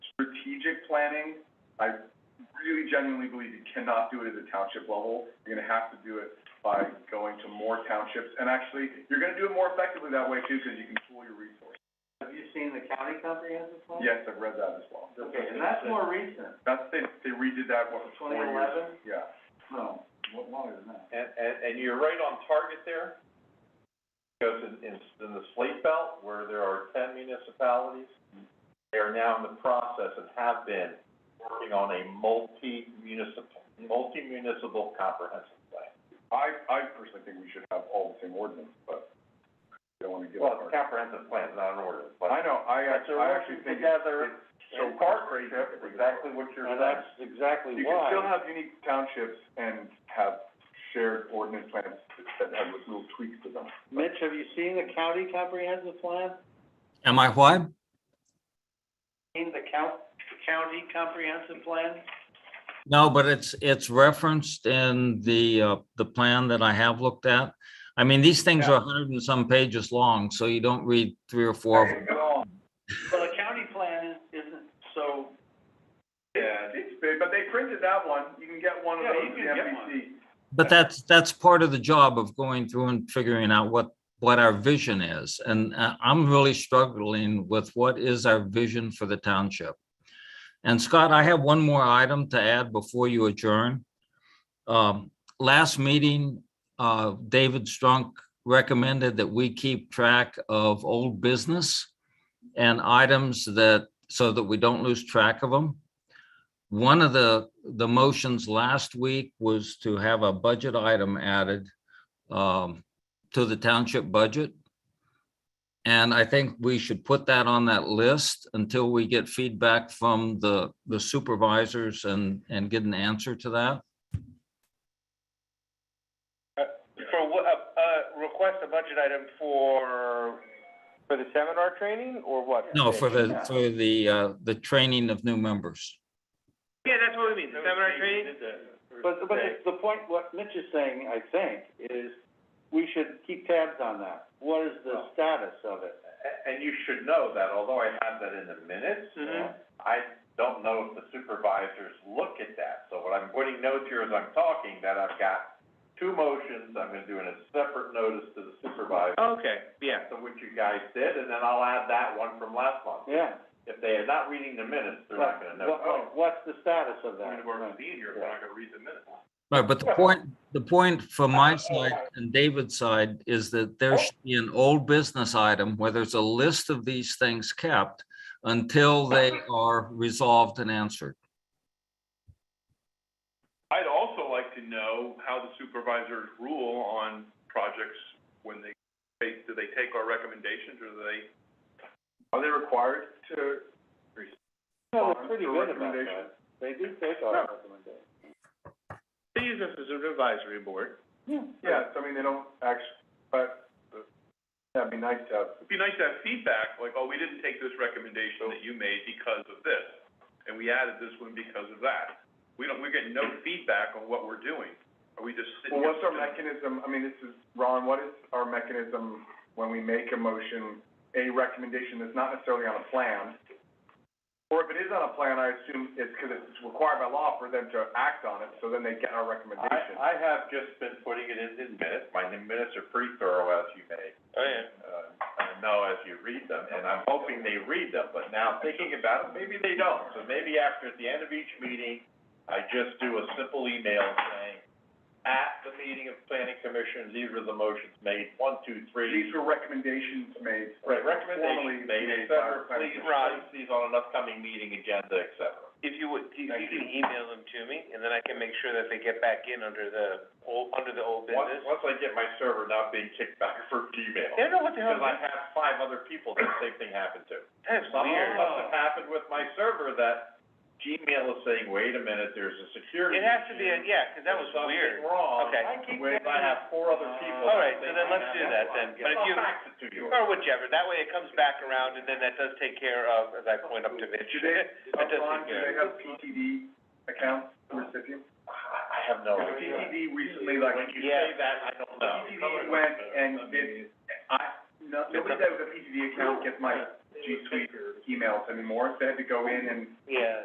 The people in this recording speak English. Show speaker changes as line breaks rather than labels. strategic planning, I really genuinely believe you cannot do it at the township level. You're gonna have to do it by going to more townships, and actually, you're gonna do it more effectively that way too, because you can pool your resources.
Have you seen the county comprehensive plan?
Yes, I've read that as well.
Okay, and that's more recent,
That's, they, they redid that, what, four
twenty
years?
eleven?
Yeah.
No, what longer than that?
And, and, and you're right on target there, because in, in, in the slate belt, where there are ten municipalities, they are now in the process and have been working on a multi-municipal, multi-municipal comprehensive plan.
I, I personally think we should have all the same ordinance, but I don't wanna give
Well,
up.
it's a comprehensive plan, it's not an ordinance, but.
I know, I,
But they're
I actually think
working together
it's so
in partnership,
partnership,
exactly what you're saying.
exactly
You can still have unique townships and have shared ordinance plans that have little tweaks to them.
Mitch, have you seen the county comprehensive plan?
Am I what?
Seen the count, county comprehensive plan?
No, but it's, it's referenced in the, uh, the plan that I have looked at. I mean, these things are a hundred and some pages long, so you don't read three or four. of them.
Well, the county plan is- isn't, so,
Yeah, it's big, but they printed that one, you can get one of
Yeah, you
those in
can get
MPC.
But that's, that's part of the job of going through and figuring out what, what our vision is. And uh, I'm really struggling with what is our vision for the township. And Scott, I have one more item to add before you adjourn. Um, Last meeting, uh, David Strunk recommended that we keep track of old business and items that, so that we don't lose track of them. One of the, the motions last week was to have a budget item added um, to the township budget. And I think we should put that on that list until we get feedback from the, the supervisors and, and get an answer to that.
For what, uh, uh, request a budget item for? For the seminar training or what?
No, for the, for the, uh, the training of new members.
Yeah, that's what we mean, the seminar training?
but, but it's the point, what Mitch is saying, I think, is we should keep tabs on that. What is the status of it?
A- And you should know that, although I have that in the minutes,
Mhm.
I don't know if the supervisors look at that. So what I'm putting notes here as I'm talking, that I've got two motions, I'm gonna do in a separate notice to the supervisor.
Okay, yeah.
So what you guys did, and then I'll add that one from last month.
Yeah.
If they are not reading the minutes, they're not gonna know. Oh,
What- what- What's the status of that?
Right, but the point, the point from my side and David's side is that there should be an old business item where there's a list of these things kept until they are resolved and answered.
I'd also like to know how the supervisors rule on projects when they, they, do they take our recommendations or do they?
Are they required to?
No, they're pretty
For
good about
recommendation.
that. They do take our recommendations.
They use us as an advisory board.
Yes, I mean, they don't actually, but, uh, that'd be nice to have.
It'd be nice to have feedback, like, oh, we didn't take this recommendation that you made because of this, and we added this one because of that. We don't, we're getting no feedback on what we're doing. Are we just sitting?
Well, what's
here-
our mechanism, I mean, this is, Ron, what is our mechanism when we make a motion, a recommendation that's not necessarily on a plan? Or if it is on a plan, I assume it's because it's required by law for them to act on it, so then they get our recommendation.
I, I have just been putting it in in minutes. My minutes are pretty thorough, as you may
Oh, yeah.
uh, I know as you read them, and I'm hoping they read them, but now thinking about it, maybe they don't. So maybe after, at the end of each meeting, I just do a simple email saying, at the meeting of planning commission, these are the motions made, one, two, three.
These were recommendations made.
Right,
formally
recommendations made,
made
et
by our
cetera, please
planning
place these on an upcoming meeting agenda, et cetera.
If you would, you,
Thank
you can email them to me, and then I can make sure that they get back in under the old, under the old
Once,
business.
once I get my server not being kicked back for Gmail,
I don't know what the hell,
because I have five other people that the same thing happened to.
that's
Something
weird.
must have happened with my server that Gmail is saying, wait a minute, there's a security
It has to be,
issue.
a- yeah, 'cause that was
There's
weird.
Something wrong.
Okay.
When I have four other people.
All right,
that
so
think I
then let's
have
do that then.
one.
But if
I'll
you- Oh.
fax it to you.
Or whichever, that way it comes back around, and then that does take care of, as I point up to Mitch.
Do they,
That does
Ron, do
take care
they
of it.
have PTD accounts for recipients?
I, I have no
Because
idea.
PTD recently, like,
When you
Yeah.
say that, I don't know.
PTD went and did, I, no, nobody that with a PTD account gets my G Suite emails anymore. They had to go in and
Yeah.